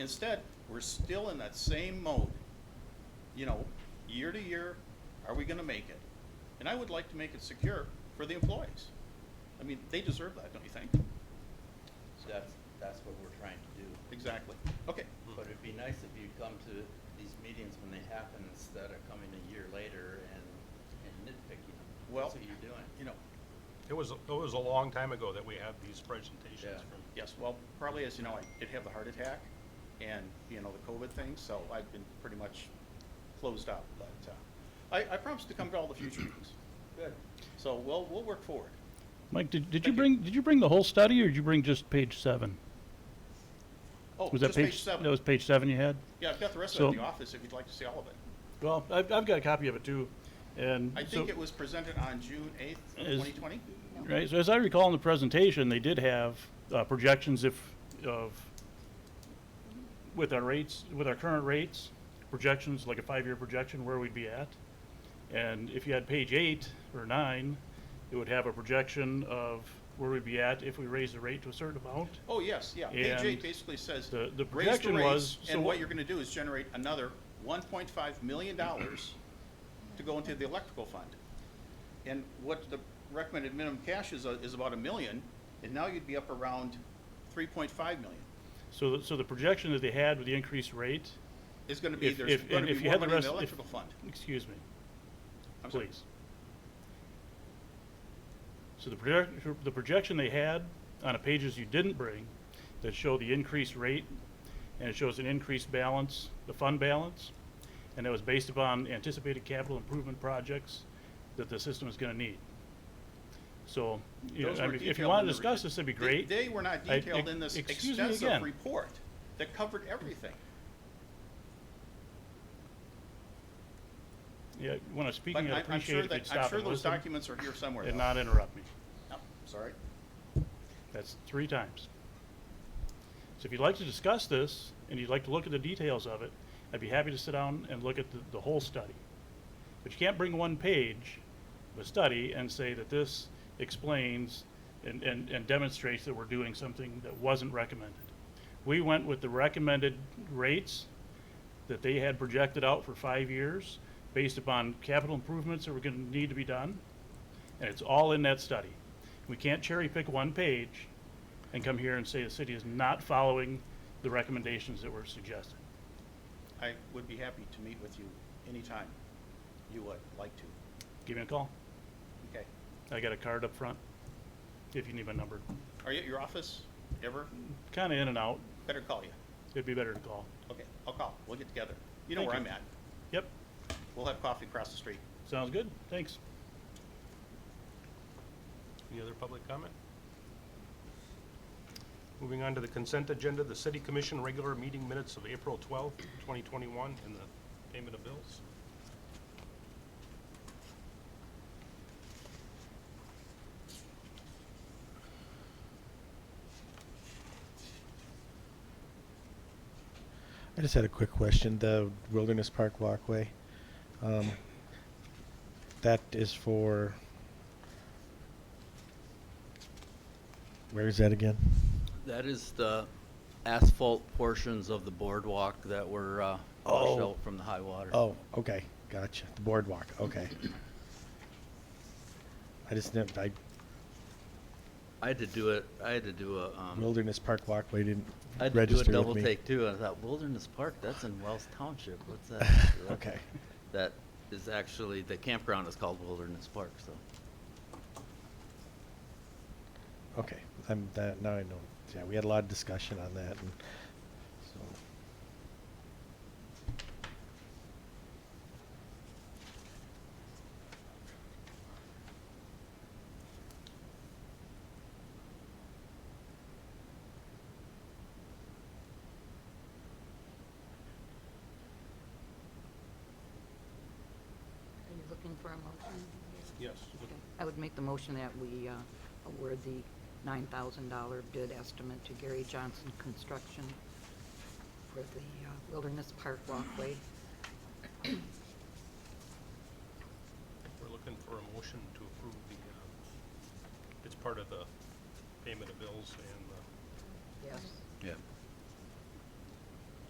Instead, we're still in that same mode. You know, year to year, are we gonna make it? And I would like to make it secure for the employees. I mean, they deserve that, don't you think? So That's, that's what we're trying to do. Exactly. Okay, But it'd be nice if you'd come to these meetings when they happen instead of coming a year later and, and nitpicking them. Well- That's what you're doing. you know, It was, it was a long time ago that we had these presentations Yeah. from. yes, well, probably as you know, I did have the heart attack and, you know, the COVID thing, so I've been pretty much closed out, but, uh, I, I promised to come to all the future meetings, Good. so we'll, we'll work forward. Mike, did, did Thank you you. bring, did you bring the whole study, or did you bring just page seven? Oh, Was that just page That seven. was page seven you had? Yeah, I've got the rest of it in So- the office if you'd like to see all of it. Well, I've, I've got a copy of it too, and. I so- think it was presented on June eighth, Is- twenty twenty. Right, so as I recall in the presentation, they did have uh, projections if, of, with our rates, with our current rates, projections, like a five-year projection, where we'd be at. And if you had page eight or nine, it would have a projection of where we'd be at if we raise the rate to a certain amount. Oh, yes, yeah. Page eight And basically says, the- the raise the projection rates, was- so and what what- you're gonna do is generate another one point five million dollars to go into the electrical fund. And what the recommended minimum cash is, uh, is about a million, and now you'd be up around three point five million. So, so the projection that they had with the increased rate, It's gonna be, If- there's if- gonna and be if you more had the money in the rest- if- electrical fund. excuse me, I'm sorry. please. So the project, the projection they had on the pages you didn't bring that show the increased rate and it shows an increased balance, the fund balance, and that was based upon anticipated capital improvement projects that the system is gonna need. So, you know, Those I were mean, if you detailed in wanna the discuss re- this, that'd be They- great. They were not I- detailed ex- in this excuse me extensive again. report that covered everything. Yeah, when I'm But speaking, I- I'd I'm sure appreciate it if that- you'd stop I'm sure and those listen documents are here somewhere. and though. not interrupt me. Oh, Sorry. That's three times. So if you'd like to discuss this and you'd like to look at the details of it, I'd be happy to sit down and look at the, the whole study. But you can't bring one page of a study and say that this explains and, and, and demonstrates that we're doing something that wasn't recommended. We went with the recommended rates that they had projected out for five years based upon capital improvements that were gonna need to be done. And it's all in that study. We can't cherry pick one page and come here and say the city is not following the recommendations that were suggested. I would be happy to meet with you anytime you would like to. Give me a call. Okay. I got a card up front if you need my number. Are you at your office ever? Kinda in and out. Better call you. It'd be better to call. Okay, I'll call. We'll get together. You know Thank where I'm you. at. Yep, We'll have coffee across the street. sounds good. Thanks. Any other public comment? Moving on to the consent agenda, the city commission regular meeting minutes of April twelfth, twenty twenty-one, and the payment of bills. I just had a quick question. The Wilderness Park walkway, um, that is for. Where is that again? That is the asphalt portions of the boardwalk that were, uh, washed Oh. out from the high water. Oh, okay, gotcha. The boardwalk. Okay. I just never. I I had to do it, I had to do a, um, Wilderness Park walkway didn't I had to do a register double with me. take too. and I thought Wilderness Park, that's in Wells Township. What's that? okay. That is actually, the campground is called Wilderness Park, so. Okay. I'm that now. I know. Yeah, we had a lot of discussion on that, and so Are you looking for a motion? Yes. Okay. I would make the motion that we uh, award the $9,000 bid estimate to Gary Johnson Construction for the uh, Wilderness Park walkway. We're looking for a motion to approve the, uh, it's part of the payment of bills and Yes. Yeah.